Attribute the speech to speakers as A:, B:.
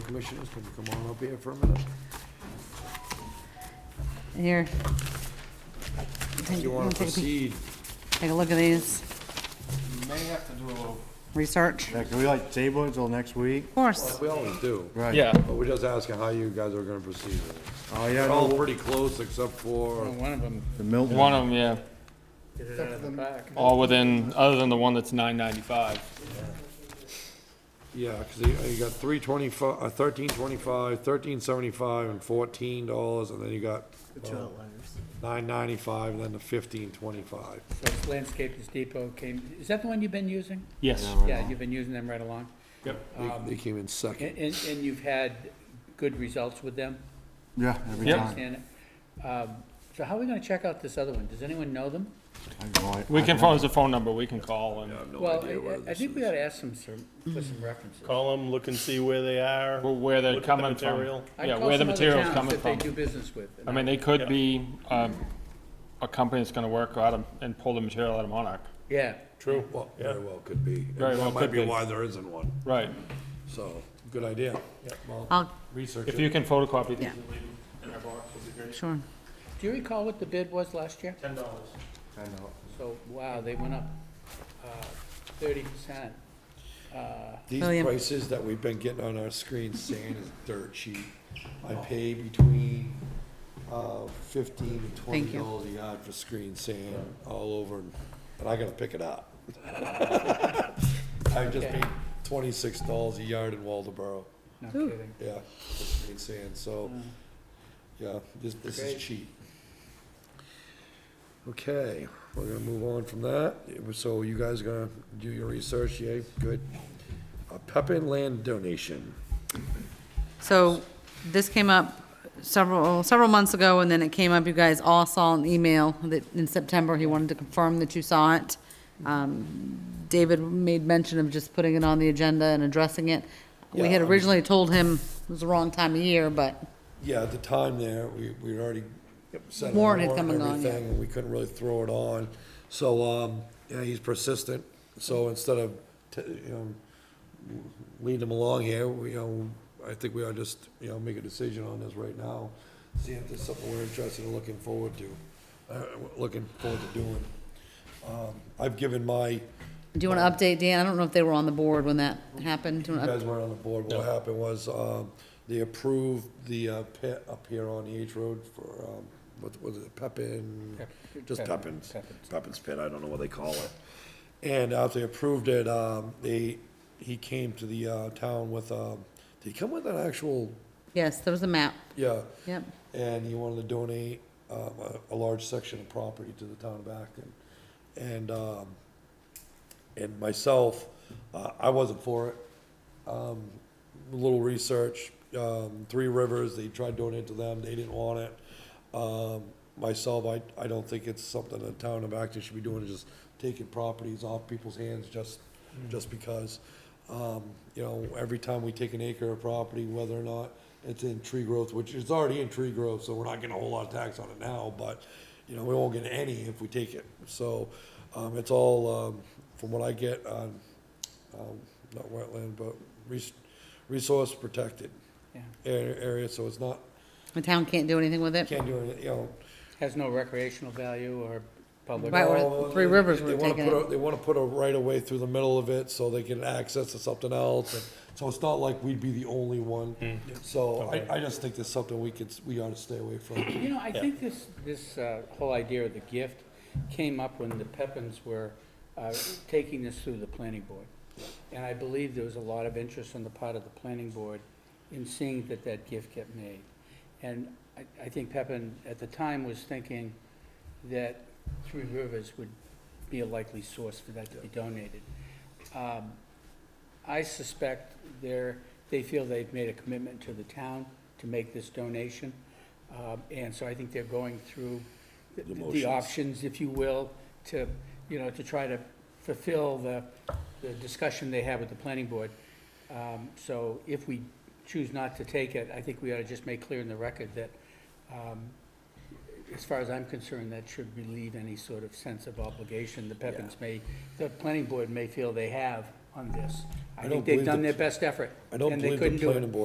A: Commissioners, can you come on up here for a minute?
B: Here.
A: If you want to
B: Take a peek-
A: proceed,
B: Take a look at these,
C: May have to do a little.
B: research,
D: Yeah, can we like table it till next week?
B: of course.
A: we always do,
D: Right.
C: Yeah.
A: but we're just asking how you guys are going to proceed. with it.
D: Oh, yeah,
A: They're all
D: no,
A: pretty close except for,
C: One of them.
D: the Milton.
C: One of them, yeah. All within, other than the one that's nine ninety-five.
A: yeah, because you got three twenty-five, uh, thirteen twenty-five, thirteen seventy-five, and fourteen dollars, and then you got uh, nine ninety-five, and then the fifteen twenty-five.
E: That's Landscapers Depot came, is that the one you've been using?
C: Yes.
E: Yeah, you've been using them right along.
A: They- They came in
E: And,
A: second.
E: and and you've had good results with them,
D: Yeah, every
C: Yep.
D: time.
E: and, um, so how are we gonna check out this other one? Does anyone know them?
D: I go, I-
C: We
D: I
C: can,
D: go.
C: phone it's a phone number, we can call and,
A: I have no
E: Well,
A: idea where
E: I- I, I
A: this
E: think we
A: is.
E: ought to ask them some, for some references.
F: Call them, look and see where they are.
C: Well, where they're
F: look at the
C: coming from.
F: material.
E: I'd
C: Yeah,
E: call
C: where the
E: some other
C: material's
E: towns
C: coming
E: That
C: from.
E: they do business with.
C: I mean, they could be, um, a company that's gonna work out of, and pull the material out of Monarch.
E: Yeah,
F: True.
A: Well, very well could be. And
C: Very well
A: That might
C: could
A: be
C: be.
A: why there isn't one,
C: Right.
A: so, good idea. Well,
B: I'll,
A: Research
C: If
A: it.
C: you can photocopy these
B: Yeah.
C: and leave them in our box, it'd be great.
B: sure.
E: do you recall what the bid was last year?
C: Ten dollars.
D: I know.
E: So, wow, they went up, uh, thirty percent. Uh,
A: These
B: William.
A: prices that we've been getting on our screen saying is dirt cheap. I pay between, uh, fifteen and twenty
B: Thank you.
A: dollars a yard for screen sand all over, and and I gotta pick it up. I just
E: Okay.
A: paid twenty-six dollars a yard in Waldeboro,
E: no kidding.
A: yeah, for screen sand, so, yeah, this, this
E: Great.
A: is cheap. Okay, we're gonna move on from that, It was- so you guys are gonna do your research, yay, good. A Pepin land donation.
B: So this came up several, several months ago, and then it came up, you guys all saw an email that in September, he wanted to confirm that you saw it. Um, David made mention of just putting it on the agenda and addressing it. We
A: Yeah, I
B: had
A: mean-
B: originally told him it was the wrong time of year, but
A: Yeah, at the time there, we, we'd already set a warrant
B: Warren had
A: and
B: come and gone, yeah.
A: everything, and we couldn't really throw it on. So, um, yeah, he's persistent, so instead of, t- you know, leading him along here, we, you know, I think we ought to just, you know, make a decision on this right now. See if there's something we're interested in looking forward to, uh, looking forward to doing. Um, I've given my,
B: do you want to update Dan? I don't know if they were on the board when that happened. Do you
A: You
B: wanna up-
A: guys weren't on the board, what happened was, um, they approved the uh, pit up here on the H Road for, um, what was it, Pepin? Just Pepin's, Pepin's Pit, I don't know what they call it. And after they approved it, um, they, he came to the, uh, town with, um, did he come with an actual,
B: Yes, there was a map.
A: yeah,
B: Yep.
A: and he wanted to donate um, a, a large section of property to the town of Acton. And, um, and myself, uh, I wasn't for it. Um, little research, um, Three Rivers, they tried donating to them, they didn't want it. Um, myself, I, I don't think it's something the town of Acton should be doing, is just taking properties off people's hands just, just because. Um, you know, every time we take an acre of property, whether or not it's in tree growth, which is already in tree growth, so we're not getting a whole lot of tax on it now, but, you know, we won't get any if we take it. So, um, it's all, um, from what I get on, um, not wetland, but res- resource protected
E: Yeah.
A: a- area, so it's not,
B: The town can't do anything with it.
A: can't do it, you know.
E: Has no recreational value or public.
B: Right, or
A: Well,
B: Three Rivers
A: they-
B: were
A: they wanna
B: taking
A: put
B: it.
A: a- They wanna put a right of way through the middle of it so they can access to something else, and, so it's not like we'd be the only one. So I, I just think that's something we could, s- we ought to stay away from.
E: You know, I think this, this uh, whole idea of the gift came up when the Pepins were uh, taking this through the planning board. And I believe there was a lot of interest on the part of the planning board in seeing that that gift get made. And I, I think Pepin, at the time, was thinking that Three Rivers would be a likely source for that to be donated. Um, I suspect they're, they feel they've made a commitment to the town to make this donation. Um, And so I think they're going through th- the options, if you will, to, you know, to try to fulfill the, the discussion they had with the planning board. Um, So if we choose not to take it, I think we ought to just make clear in the record that, um, as far as I'm concerned, that should relieve any sort of sense of obligation the Pepins may, the planning board may feel they have on this.
A: I
E: I
A: don't
E: think
A: believe
E: they've done
A: the-
E: their best effort.
A: I don't
E: and they
A: believe the
E: couldn't do it.
A: planning board